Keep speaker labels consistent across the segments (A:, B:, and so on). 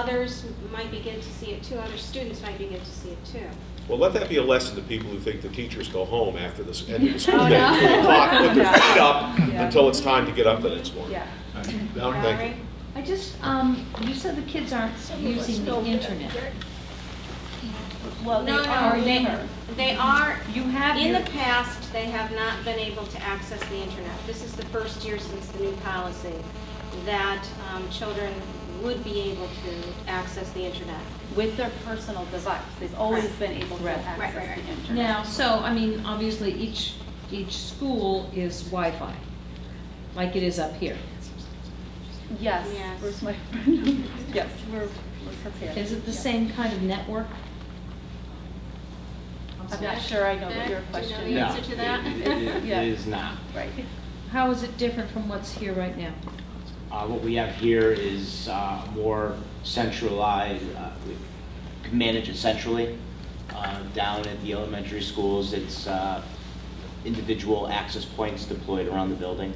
A: others might be good to see it too, other students might be good to see it too.
B: Well, let that be a lesson to people who think the teachers go home after the, end of the school
A: Oh,
B: day,
A: no.
B: at two o'clock, put their feet up
C: Yeah.
B: until it's time to get up the next morning.
C: Yeah.
B: No,
A: Valerie?
B: thank you.
D: I just, um, you said the kids aren't using the internet. Well, they
A: No, no,
D: are
A: they-
D: now.
A: They are,
D: You have
A: in
D: your,
A: the past, they have not been able to access the internet. This is the first year since the new policy that um, children would be able to access the internet.
E: with their personal device. They've always
A: Right.
E: been able to
C: Right.
A: Right, right,
E: access
A: right.
E: the internet.
D: now, so, I mean, obviously, each, each school is Wi-Fi, like it is up here.
E: Yes,
A: Yes.
E: where's my, yes, we're we're prepared.
D: Is it the
E: Yeah.
D: same kind of network?
E: I'm not sure I know
A: Beck,
E: what your
A: do you know
E: question
A: the
E: is.
A: Yeah. answer to that?
F: No, it- it-
E: Yeah.
F: It is not.
E: Right.
D: How is it different from what's here right now?
F: Uh, What we have here is uh, more centralized, uh, we can manage it centrally. Uh, Down at the elementary schools, it's uh, individual access points deployed around the building.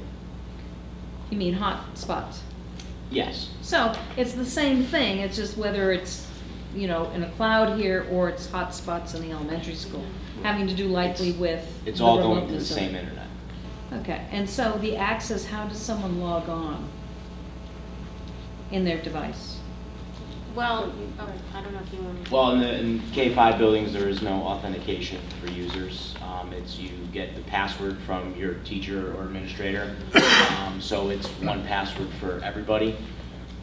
D: You mean hot spots?
F: Yes,
D: So, it's the same thing, it's just whether it's, you know, in a cloud here, or it's hot spots in the elementary school, having to do likely with.
F: it's
D: the
F: all going
D: remote
F: to the
D: facility.
F: same internet.
D: Okay, and so the access, how does someone log on in their device?
A: Well, oh, I don't know if you want to.
F: Well, in the, in K-5 buildings, there is no authentication for users. Um, It's you get the password from your teacher or administrator. Um, So it's one password for everybody.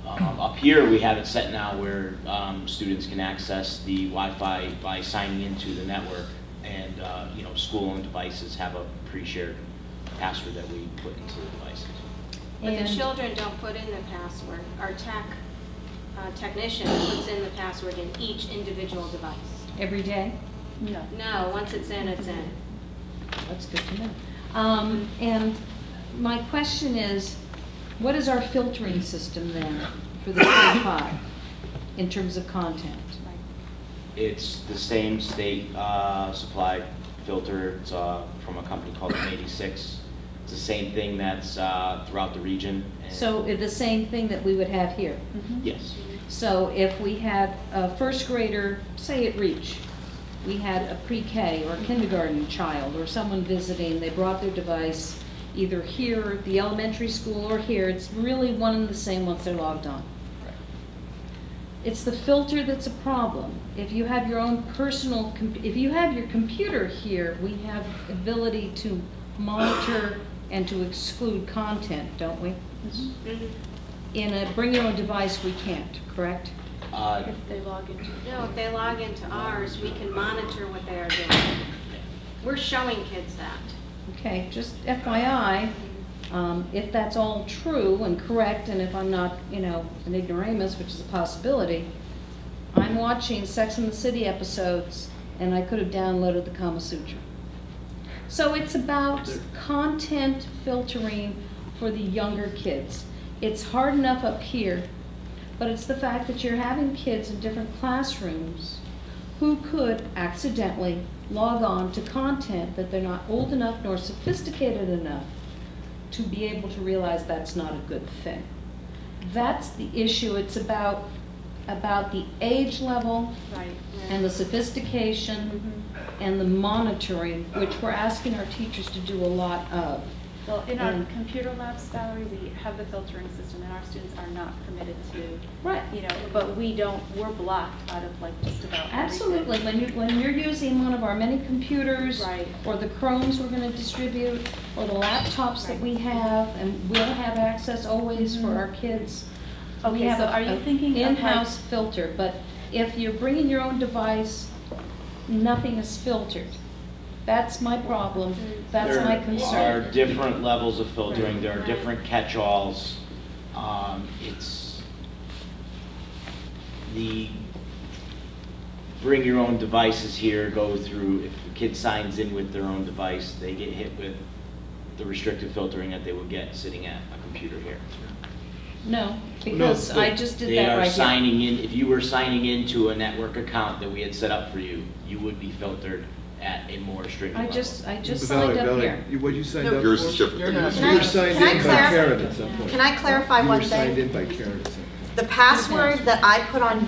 F: Um, Up here, we have it set now where um, students can access the Wi-Fi by signing into the network. And, uh, you know, school-owned devices have a pre-shared password that we put into the devices.
A: But the
D: And-
A: children don't put in the password. Our tech uh, technician puts in the password in each individual device.
D: Every day?
E: No.
A: No, once it's in, it's in.
D: That's good to know. Um, and my question is, what is our filtering system then for the K five in terms of content?
F: It's the same state uh, supplied filter, it's uh, from a company called N86. It's the same thing that's uh, throughout the region. and-
D: So eh, the same thing that we would have here.
E: Mhm.
F: Yes,
D: So if we had a first grader, say at Reach, we had a pre-K or a kindergarten child or someone visiting, they brought their device either here, at the elementary school, or here, it's really one and the same once they're logged on. It's the filter that's a problem. If you have your own personal, com- if you have your computer here, we have ability to monitor and to exclude content, don't we?
E: Mhm.
A: Mhm.
D: In a bring-your-own-device, we can't, correct?
F: Uh,
E: If they log into.
A: No, if they log into ours, we can monitor what they are doing. We're showing kids that.
D: Okay, just FYI, um, if that's all true and correct, and if I'm not, you know, an ignoramus, which is a possibility, I'm watching Sex and the City episodes, and I could have downloaded the Kama Sutra. So it's about content filtering for the younger kids. It's hard enough up here, but it's the fact that you're having kids in different classrooms who could accidentally log on to content that they're not old enough nor sophisticated enough to be able to realize that's not a good thing. That's the issue. It's about, about the age level
E: Right.
D: and the sophistication
E: Mm-hmm.
D: and the monitoring, which we're asking our teachers to do a lot of.
E: Well, in our
D: And-
E: computer labs, Valerie, we have the filtering system, and our students are not permitted to,
D: Right.
E: you know, but we don't, we're blocked out of like just about everything.
D: Absolutely, when you, when you're using one of our many computers.
E: Right.
D: Or the Chromes we're gonna distribute, or the laptops that we have, and we'll have access always for our kids. We
E: Mm-hmm. Okay,
D: have
E: so
D: a-
E: are you
D: a
E: thinking of like-
D: In-house filter, but if you're bringing your own device, nothing is filtered. That's my problem,
E: Mm-hmm.
D: that's my
F: There
D: concern.
F: are different levels of filtering, there are different catch-alls. Um, It's the bring your own devices here, go through, if a kid signs in with their own device, they get hit with the restrictive filtering that they would get sitting at a computer here.
D: No, because I just did
F: They
D: that right
F: are
D: here.
F: signing in, if you were signing into a network account that we had set up for you, you would be filtered at a more restricted
D: I
F: level.
D: just, I just
G: Valerie,
D: signed up
G: Valerie,
D: here.
G: you- What you signed
H: No,
G: up for?
H: yours is different
G: You're
H: than
G: not-
H: mine.
G: You were signed
C: Can I
G: in by
C: clarify-
G: Karen at some point.
C: Can I clarify one
G: You were signed
C: thing?
G: in by Karen at some point.
C: the password that I put on